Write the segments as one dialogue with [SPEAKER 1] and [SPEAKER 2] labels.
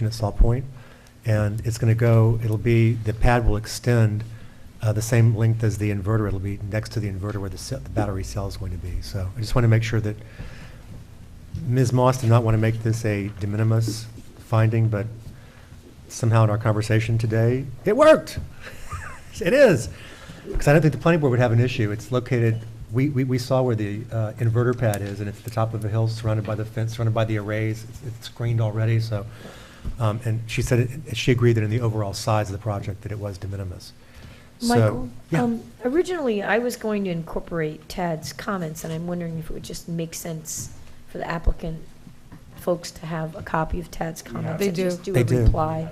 [SPEAKER 1] at Saw Point, and it's going to go, it'll be, the pad will extend uh, the same length as the inverter. It'll be next to the inverter where the ce- the battery cell is going to be. So I just want to make sure that Ms. Moss did not want to make this a de minimis finding, but somehow in our conversation today, it worked. It is. Because I don't think the planning board would have an issue. It's located, we, we, we saw where the uh, inverter pad is, and it's the top of a hill surrounded by the fence, surrounded by the arrays. It's- It's screened already, so, um, and she said, it- she agreed that in the overall size of the project, that it was de minimis. So-
[SPEAKER 2] Michael,
[SPEAKER 1] Yeah.
[SPEAKER 2] um, originally, I was going to incorporate Tad's comments, and I'm wondering if it would just make sense for the applicant folks to have a copy of Tad's comments.
[SPEAKER 3] They
[SPEAKER 2] and
[SPEAKER 3] do.
[SPEAKER 2] just do
[SPEAKER 1] They
[SPEAKER 2] a
[SPEAKER 1] do.
[SPEAKER 2] reply.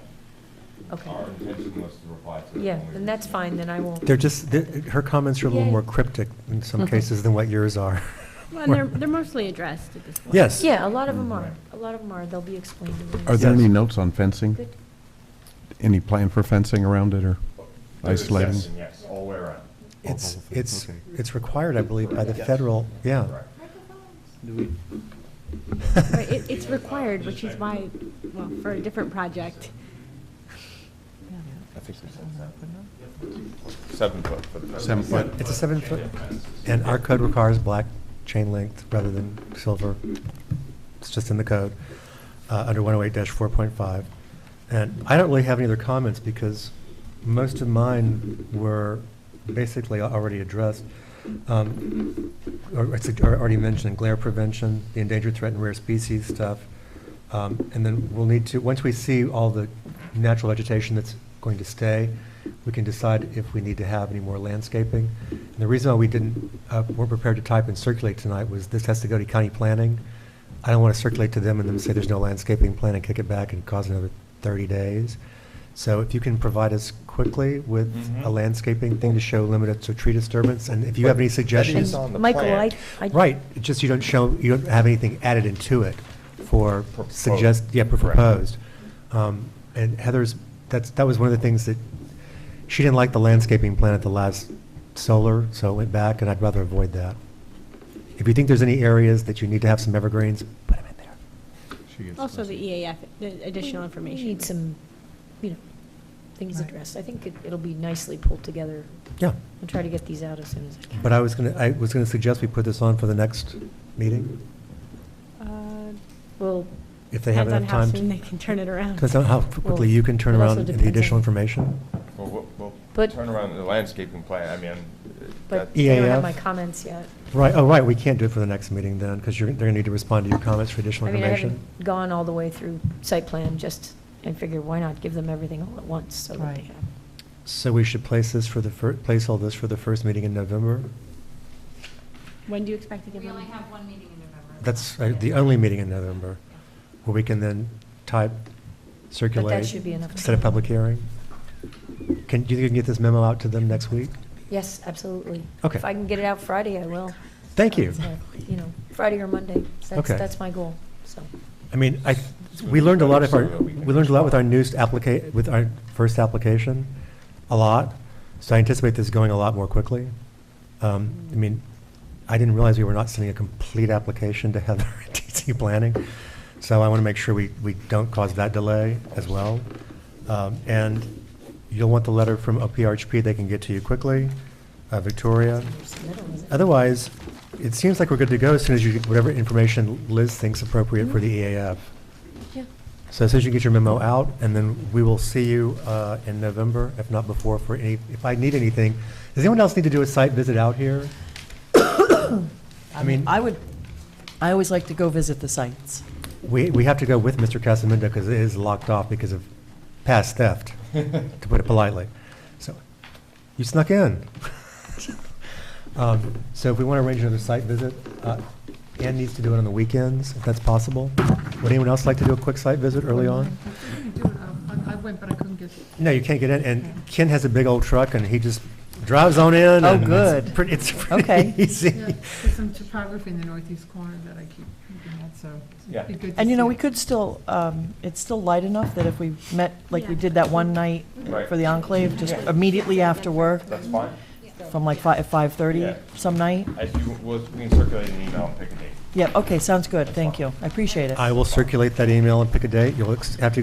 [SPEAKER 2] Okay,
[SPEAKER 4] Our intention was to reply to.
[SPEAKER 2] yeah, then that's fine, then I won't.
[SPEAKER 1] They're just, they're- her comments are a little
[SPEAKER 2] Yay.
[SPEAKER 1] more cryptic in some
[SPEAKER 3] Mhm.
[SPEAKER 1] cases than what yours are.
[SPEAKER 5] Well, and they're, they're mostly addressed at this point.
[SPEAKER 1] Yes.
[SPEAKER 2] Yeah, a lot of them are,
[SPEAKER 1] Mm-hmm.
[SPEAKER 2] a lot of them are, they'll be explained. in the-
[SPEAKER 6] Are there any
[SPEAKER 1] Yes.
[SPEAKER 6] notes on fencing?
[SPEAKER 2] Good.
[SPEAKER 6] Any plan for fencing around it or isolating?
[SPEAKER 4] Yes, all the way around.
[SPEAKER 1] It's, it's, it's required, I believe, by the federal, yeah.
[SPEAKER 4] Correct.
[SPEAKER 5] Right, it, it's required, which is why, well, for a different project.
[SPEAKER 4] I think we said that. Seven foot for the.
[SPEAKER 6] Seven foot.
[SPEAKER 1] It's a seven foot, and our code requires black chain length rather than silver. It's just in the code, uh, under one oh eight four point five. And I don't really have any other comments because most of mine were basically already addressed. Um, Or, it's already mentioned glare prevention, the endangered, threatened, rare species stuff. Um, And then we'll need to, once we see all the natural vegetation that's going to stay, we can decide if we need to have any more landscaping. And the reason why we didn't, uh, weren't prepared to type and circulate tonight was this has to go to county planning. I don't want to circulate to them and then say there's no landscaping plan and kick it back and cause another 30 days. So if you can provide us quickly with a
[SPEAKER 4] Mhm.
[SPEAKER 1] landscaping thing to show limited to tree disturbance, and if you have any
[SPEAKER 4] But that is
[SPEAKER 1] suggestions.
[SPEAKER 4] on the
[SPEAKER 2] Michael, I,
[SPEAKER 4] plan.
[SPEAKER 2] I.
[SPEAKER 1] Right, it's just you don't show, you don't have anything added into it for
[SPEAKER 4] Proposed.
[SPEAKER 1] suggest, yeah, for
[SPEAKER 4] Correct.
[SPEAKER 1] proposed. Um, And Heather's, that's, that was one of the things that, she didn't like the landscaping plan at the last solar, so it went back, and I'd rather avoid that. If you think there's any areas that you need to have some evergreens, put them in there.
[SPEAKER 5] Also the
[SPEAKER 2] E
[SPEAKER 5] EAF, the additional
[SPEAKER 2] We
[SPEAKER 5] information.
[SPEAKER 2] need some, you know, things
[SPEAKER 3] Right.
[SPEAKER 2] addressed. I think it- it'll be nicely pulled together.
[SPEAKER 1] Yeah,
[SPEAKER 2] I'll try to get these out as soon as I can.
[SPEAKER 1] but I was gonna, I was gonna suggest we put this on for the next meeting,
[SPEAKER 5] Uh,
[SPEAKER 2] Well,
[SPEAKER 1] if they have enough time.
[SPEAKER 5] Depends on how soon they can turn it around.
[SPEAKER 1] Depends on how quickly you can turn
[SPEAKER 2] Well, it also
[SPEAKER 1] around the
[SPEAKER 2] depends on-
[SPEAKER 1] additional information.
[SPEAKER 4] Well, We'll, we'll
[SPEAKER 2] But-
[SPEAKER 4] turn around the landscaping plan, I mean. uh,
[SPEAKER 2] but
[SPEAKER 4] that-
[SPEAKER 2] I don't have
[SPEAKER 1] EAF?
[SPEAKER 2] my comments yet.
[SPEAKER 1] Right, oh, right, we can't do it for the next meeting then, because you're, they're gonna need to respond to your comments for additional
[SPEAKER 2] I mean, I
[SPEAKER 1] information.
[SPEAKER 2] haven't gone all the way through site plan, just, I figure why not give them everything all at once, so that they
[SPEAKER 3] Right.
[SPEAKER 2] have.
[SPEAKER 1] So we should place this for the fir, place all this for the first meeting in November?
[SPEAKER 5] When do you expect to give
[SPEAKER 7] We
[SPEAKER 5] them?
[SPEAKER 7] only have one meeting in November.
[SPEAKER 1] That's uh, the only meeting in November, where we can then type, circulate.
[SPEAKER 2] should be enough
[SPEAKER 1] Set a
[SPEAKER 2] time.
[SPEAKER 1] public hearing. Can, do you think you can get this memo out to them next week?
[SPEAKER 2] Yes, absolutely.
[SPEAKER 1] Okay.
[SPEAKER 2] If I can get it out Friday, I will.
[SPEAKER 1] Thank you.
[SPEAKER 2] So, You know, Friday or Monday, that's,
[SPEAKER 1] Okay.
[SPEAKER 2] that's my goal, so.
[SPEAKER 1] I mean, I, we learned a lot of our, we learned a lot with our newest applica, with our first application, a lot. So I anticipate this going a lot more quickly. Um, I mean, I didn't realize we were not sending a complete application to Heather at DC Planning. So I want to make sure we, we don't cause that delay as well. Um, and you'll want the letter from OPRHP, they can get to you quickly, uh, Victoria. Otherwise, it seems like we're good to go as soon as you, get whatever information Liz thinks appropriate for the EAF.
[SPEAKER 2] Yeah.
[SPEAKER 1] So as soon as you get your memo out, and then we will see you uh, in November, if not before, for any, if I need anything. Does anyone else need to do a site visit out here? I mean-
[SPEAKER 3] I would, I always like to go visit the sites.
[SPEAKER 1] We, we have to go with Mr. Casaminda because it is locked off because of past theft, to put it politely. So, you snuck in. Um, So if we want to arrange another site visit, uh, Ann needs to do it on the weekends, if that's possible. Would anyone else like to do a quick site visit early on?
[SPEAKER 8] I went, but I couldn't get.
[SPEAKER 1] No, you can't get in, and Ken has a big old truck, and he just drives on in.
[SPEAKER 3] Oh,
[SPEAKER 1] and it's
[SPEAKER 3] good.
[SPEAKER 1] pretty- It's pretty
[SPEAKER 3] Okay.
[SPEAKER 1] easy.
[SPEAKER 8] Yeah, There's some topography in the northeast corner that I keep looking at, so.
[SPEAKER 4] Yeah.
[SPEAKER 8] it'd be good to
[SPEAKER 3] And you know,
[SPEAKER 8] see
[SPEAKER 3] we
[SPEAKER 8] it.
[SPEAKER 3] could still, um, it's still light enough that if we met, like we
[SPEAKER 5] Yeah.
[SPEAKER 3] did that one night
[SPEAKER 4] Right.
[SPEAKER 3] for the enclave, just
[SPEAKER 4] Yeah.
[SPEAKER 3] immediately after work,
[SPEAKER 4] That's fine.
[SPEAKER 3] from like five,
[SPEAKER 4] Yeah.
[SPEAKER 3] 5:30 some night?
[SPEAKER 4] As you, we'll, we can circulate an email and pick a date.
[SPEAKER 3] Yeah, okay, sounds good, thank you, I appreciate it.
[SPEAKER 1] I will circulate that email and pick a date. You'll ex- have to